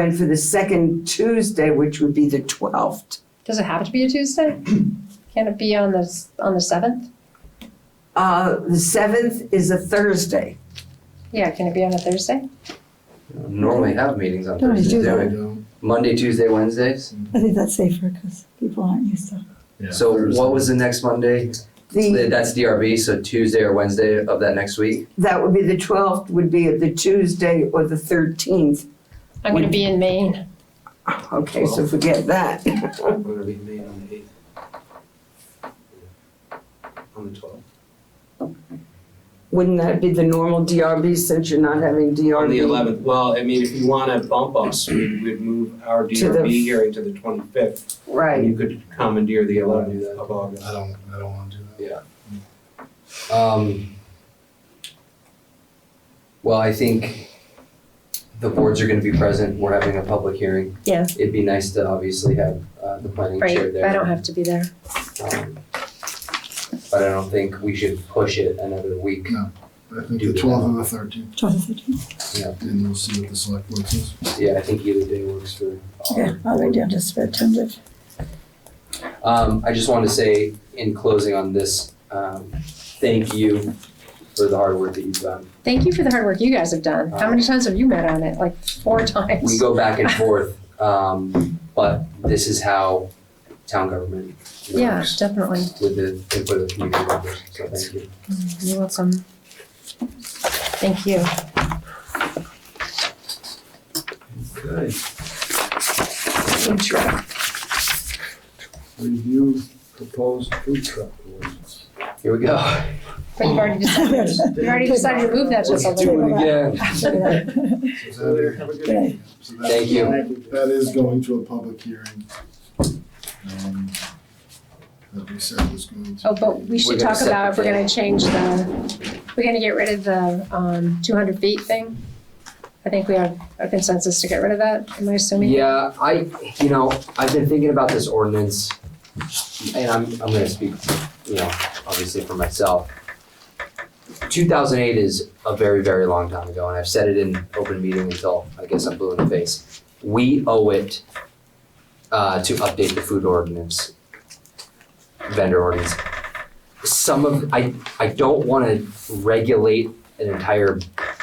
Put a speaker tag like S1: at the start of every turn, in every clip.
S1: And for the second Tuesday, which would be the twelfth,
S2: Does it have to be a Tuesday? Can it be on the, s- on the seventh?
S1: uh, the seventh is a Thursday.
S2: Yeah, can it be on a Thursday?
S3: normally have meetings on
S4: Don't we
S3: Thursdays.
S4: do
S3: don't
S4: that?
S3: we? Monday, Tuesday, Wednesdays.
S4: I think that's safer because people aren't used to.
S3: So what was the next Monday?
S1: The,
S3: That's DRB, so Tuesday or Wednesday of that next week.
S1: that would be the twelfth, would be the Tuesday or the thirteenth.
S2: I'm gonna be in Maine.
S1: Okay, so forget that.
S5: I'm gonna be made on the eighth. On the twelfth.
S1: Wouldn't that be the normal DRB since you're not having DRB?
S5: On the eleventh, well, I mean, if you wanna bump us, we would move our
S1: To the-
S5: DRB hearing to the twenty-fifth. And
S1: Right.
S5: you could commandeer the eleventh of August.
S6: I don't, I don't want to do that.
S3: Um, well, I think the boards are going to be present. We're having a public hearing.
S2: Yeah.
S3: It'd be nice to obviously have uh, the planning
S2: Right,
S3: chair there.
S2: I don't have to be there.
S3: Um, but I don't think we should push it another week.
S6: I think the twelfth and the thirteenth,
S4: Twelve to thirteen.
S6: and we'll see what the select board says.
S3: Yeah, I think either day works for. all.
S4: Yeah, I think I'm just about tentative.
S3: Um, I just wanted to say in closing on this, um, thank you for the hard work that you've done.
S2: Thank you for the hard work you guys have done. How many times have you met on it? Like four
S3: Uh, We
S2: times?
S3: go back and forth, um, but this is how town government
S2: Yeah,
S3: works
S2: definitely.
S3: with the input of community members, so thank you.
S2: You're welcome. Thank you.
S6: Okay.
S2: Food truck.
S6: Review proposed food truck ordinance.
S3: Here we go.
S2: But you've already decided, you already decided to move that to
S3: Let's do it
S2: something.
S3: again.
S6: So that is- so that-
S3: Thank you.
S6: That is going to a public hearing. um, That we said was going to.
S2: Oh, but we
S3: We're
S2: should
S3: gonna
S2: talk
S3: set
S2: about if
S3: the
S2: we're gonna
S3: date.
S2: change the, we're gonna get rid of the, um, two hundred feet thing. I think we have a consensus to get rid of that, am I assuming?
S3: Yeah, I, you know, I've been thinking about this ordinance, and I'm, I'm gonna speak, you know, obviously for myself. Two thousand eight is a very, very long time ago, and I've said it in open meeting until I guess I'm blue in the face. We owe it uh, to update the food ordinance, vendor ordinance. Some of, I, I don't wanna regulate an entire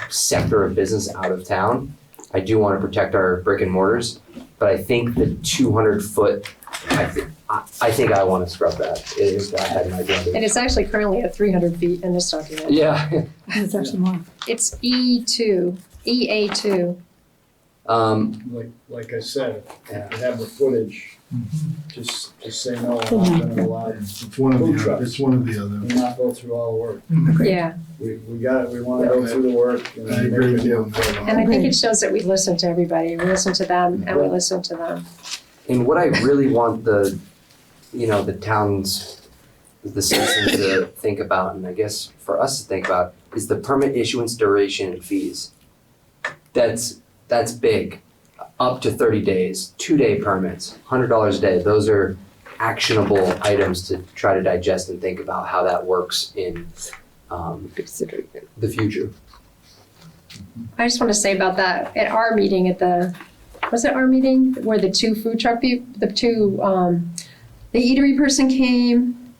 S3: sector of business out of town. I do want to protect our brick and mortars, but I think the two hundred foot, I think, I, I think I want to scrub that, if I had my
S2: And
S3: brother.
S2: it's actually currently at three hundred feet in this document.
S3: Yeah,
S4: It's actually more.
S2: It's E two, EA two.
S3: um,
S7: Like, like I said,
S3: Yeah.
S7: if you have the footage, just, just say no, I'm
S4: Mhm.
S7: not gonna allow it,
S6: Mm-hmm. It's one of
S7: Food
S6: the,
S7: trucks.
S6: other- it's one of the
S7: and
S6: other.
S7: not go through all the work.
S2: Yeah,
S7: We, we got it, we wanna go through the work. and
S6: I agree with you on
S7: make it-
S6: that.
S2: and I think
S4: Agreed.
S2: it shows that we listen to everybody, we listen to them and we
S7: Yeah.
S2: listen to them.
S3: and what I really want the, you know, the towns, the citizens to think about, and I guess for us to think about, is the permit issuance duration and fees. That's, that's big, up to thirty days, two-day permits, hundred dollars a day, those are actionable items to try to digest and think about how that works in um, the future.
S2: I just want to say about that, at our meeting at the, was it our meeting where the two food truck, peo- the two, um, the eatery person came?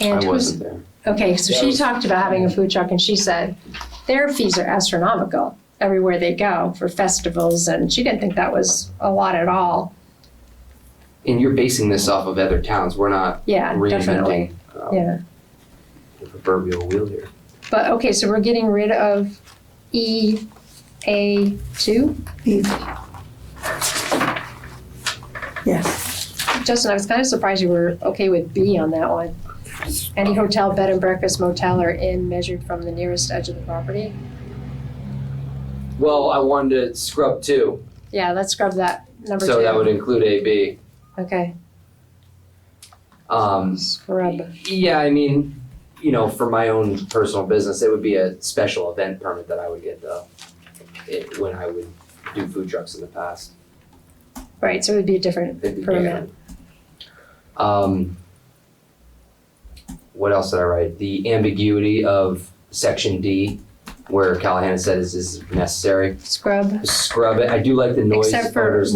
S2: And
S3: I
S2: who was,
S3: wasn't there.
S2: okay, so
S7: That
S2: she
S7: was-
S2: talked about having a food truck and she said, their fees are astronomical everywhere they go for festivals and she didn't think that was a lot at all.
S3: And you're basing this off of other towns, we're not
S2: Yeah, definitely,
S3: reinventing uh,
S2: yeah.
S3: the proverbial wheel here.
S2: But, okay, so we're getting rid of E, A, two?
S4: Yes.
S2: Justin, I was kind of surprised you were okay with B on that one. Any hotel, bed and breakfast, motel, or inn measured from the nearest edge of the property?
S3: Well, I wanted to scrub two,
S2: Yeah, let's scrub that number two.
S3: so that would include AB.
S2: Okay,
S3: Um,
S2: scrub.
S3: yeah, I mean, you know, for my own personal business, it would be a special event permit that I would get though, it, when I would do food trucks in the past.
S2: Right, so it would be a different
S3: It'd be
S2: permit.
S3: different. Um, what else did I write? The ambiguity of section D where Callahan said is, is necessary.
S2: Scrub.
S3: Scrub it. I do like the noise
S2: Except for
S3: orders